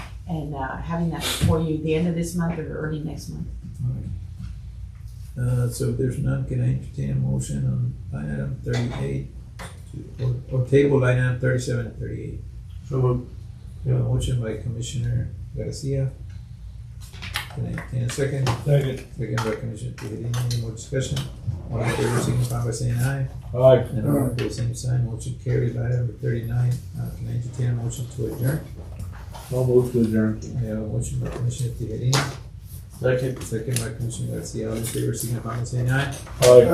and uh, having that for you the end of this month or early next month. Uh, so if there's none, can I entertain a motion on line item thirty-eight? Or, or table line item thirty-seven and thirty-eight? So moved. We have a motion by Commissioner Garcia. Can I entertain a second? Second. Second by Commissioner Tejeda, any more discussion? All in favor, signify by saying aye. Aye. And all opposed, same sign, motion carries. Item number thirty-nine, uh, can I entertain a motion to adjourn? So moved to adjourn. We have a motion by Commissioner Tejeda, Second. second by Commissioner Garcia, all in favor, signify by saying aye. Aye.